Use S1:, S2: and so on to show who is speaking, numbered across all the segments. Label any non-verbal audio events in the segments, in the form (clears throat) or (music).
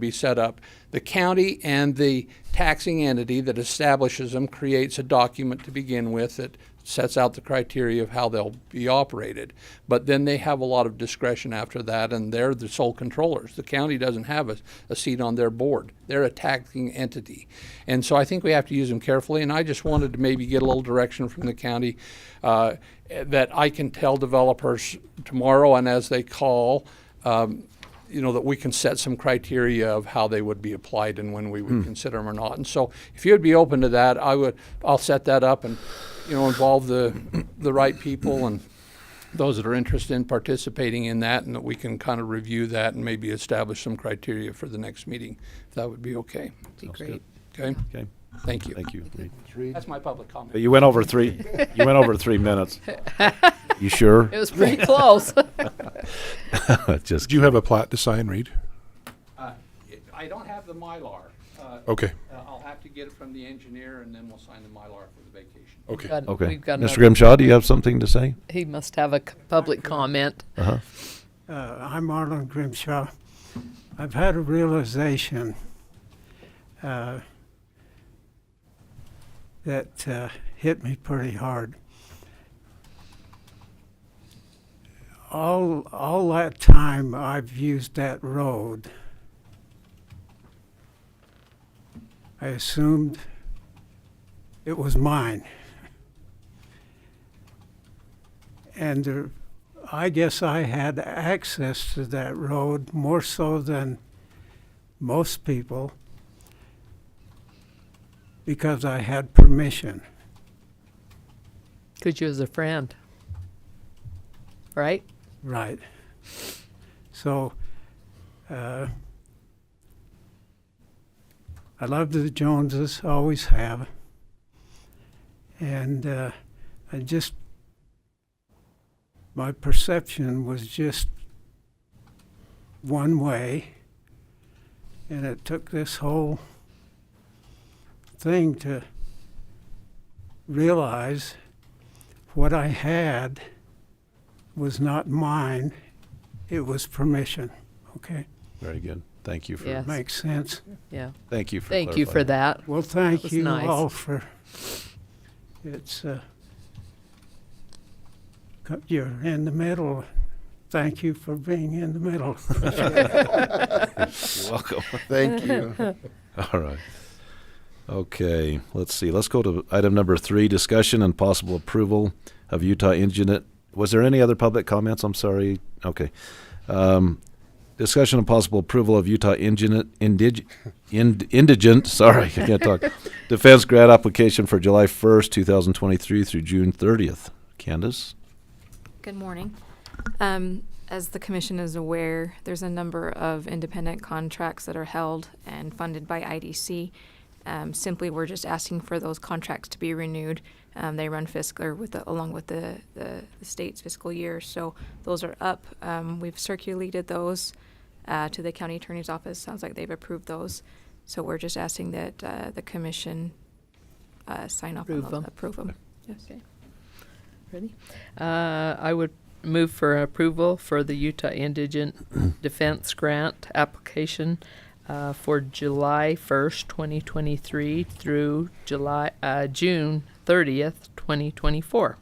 S1: be set up. The county and the taxing entity that establishes them creates a document to begin with that sets out the criteria of how they'll be operated. But then they have a lot of discretion after that, and they're the sole controllers. The county doesn't have a, a seat on their board. They're a taxing entity. And so I think we have to use them carefully, and I just wanted to maybe get a little direction from the county uh, that I can tell developers tomorrow and as they call, um, you know, that we can set some criteria of how they would be applied and when we would consider them or not. And so, if you'd be open to that, I would. I'll set that up and, you know, involve the the right people and those that are interested in participating in that, and that we can kind of review that and maybe establish some criteria for the next meeting. If that would be okay.
S2: Be great.
S1: Okay.
S3: Okay,
S1: Thank you.
S3: thank you.
S1: That's my public comment.
S3: But you went over three, you went over
S2: (laughs)
S3: three minutes. You sure?
S2: It was pretty
S4: (laughs)
S2: close.
S3: (laughs) Just,
S4: Do you have a plat to sign, Reed?
S1: Uh, I don't have the mylar. Uh,
S4: Okay,
S1: uh, I'll have to get it from the engineer, and then we'll sign the mylar for the vacation.
S4: okay.
S2: Got-
S3: okay.
S2: We've got
S3: Mr.
S2: another,
S3: Grimshaw, do you have something to say?
S2: he must have a c- public comment.
S5: Uh, I'm Arlen Grimshaw. I've had a realization uh, that uh, hit me pretty hard. All, all that time I've used that road, I assumed it was mine. And there I guess I had access to that road more so than most people because I had permission.
S2: Could you as a friend? Right?
S5: Right. So, uh, I love the Joneses, always have. And uh, I just, my perception was just one way. And it took this whole thing to realize what I had was not mine, it was permission, okay?
S3: Very good. Thank you for,
S2: Yes.
S5: Makes sense.
S2: Yeah.
S3: thank you for
S2: Thank you for
S3: clarifying.
S2: that.
S5: Well,
S2: That was
S5: thank you
S2: nice.
S5: all for, it's, uh, co- you're in the middle. Thank you for being in the middle.
S3: You're welcome.
S6: Thank you.
S3: (laughs) All right. Okay, let's see. Let's go to item number three, discussion and possible approval of Utah Indigenous. Was there any other public comments? I'm sorry. Okay. Um, discussion and possible approval of Utah Indigenous, indig, ind, indigent, (laughs) sorry, I can't talk. Defense grant application for July 1st, 2023 through June 30th. Candace?
S7: Good morning. Um, As the commission is aware, there's a number of independent contracts that are held and funded by IDC. Um, Simply, we're just asking for those contracts to be renewed. Um, They run fiscal with, the- along with the, the the state's fiscal year, so those are up. Um, We've circulated those uh, to the county attorney's office. Sounds like they've approved those. So we're just asking that uh, the commission uh, sign off on
S2: Approve
S7: those.
S2: them.
S7: Approve them. Yes.
S2: Ready? Uh, I would move for approval for the Utah
S3: (clears throat)
S2: Indigent Defense Grant application uh, for July 1st, 2023 through July, uh, June 30th, 2024.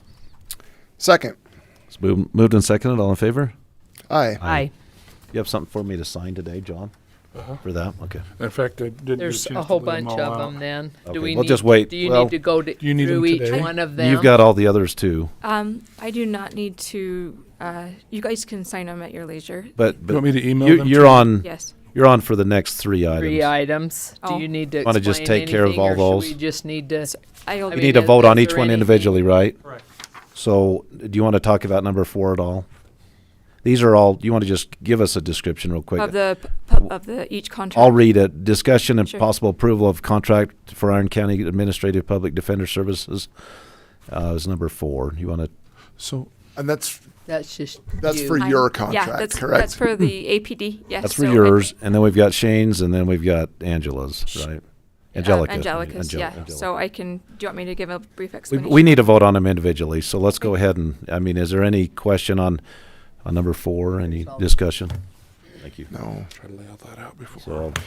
S6: Second.
S3: It's moved, moved and seconded. All in favor?
S6: Aye.
S3: Aye. You have something for me to sign today, John? For that? Okay.
S4: In fact, I didn't get a
S2: There's a
S4: chance to
S2: whole
S4: lay 'em
S2: bunch
S4: all
S2: of
S4: out.
S2: them then.
S3: Okay,
S2: Do we
S3: we'll
S2: need-
S3: just wait.
S2: Do you
S3: Well-
S2: need to go to-
S4: you need 'em
S2: through each
S4: today?
S2: one of them?
S3: You've got all the others too,
S7: Um, I do not need to, uh, you guys can sign them at your leisure.
S3: but,
S4: You
S3: but
S4: want me to email
S3: You,
S4: them? to
S3: you're on.
S7: Yes.
S3: You're on for the next three items.
S2: Three items. Do
S7: Oh.
S2: you need to
S3: Want to just
S2: explain
S3: take care of
S2: anything,
S3: all
S2: or should we
S3: those?
S2: just need to,
S7: I
S2: I
S3: We
S2: mean,
S3: need to
S2: is-
S3: vote
S2: is
S3: on each
S2: there
S3: one
S2: anything-
S3: individually, right? Correct. So, do you want to talk about number four at all? These are all. You want to just give us a description real quick?
S7: of the p- pub- of the each contract.
S3: I'll read it. Discussion and
S7: Sure.
S3: possible approval of contract for Iron County Administrative Public Defender Services uh, is number four. You want to?
S4: So,
S6: And that's
S2: that's just
S6: that's
S2: you.
S6: for
S7: I'm-
S6: your
S7: yeah,
S6: contract,
S7: that's,
S6: correct?
S7: That's for the APD. Yes.
S3: That's for
S7: so I-
S3: yours, and then we've got Shane's, and then we've got Angela's, right?
S7: um,
S3: Angelica.
S7: Angelica's.
S3: Angel-
S7: yeah.
S3: Angelica.
S7: So I can. Do you want me to give a brief
S3: We,
S7: explanation?
S3: we need to vote on them individually, so let's go ahead and, I mean, is there any question on, on number four, any discussion? Thank you.
S6: no.
S4: try to lay all that out before.
S3: So,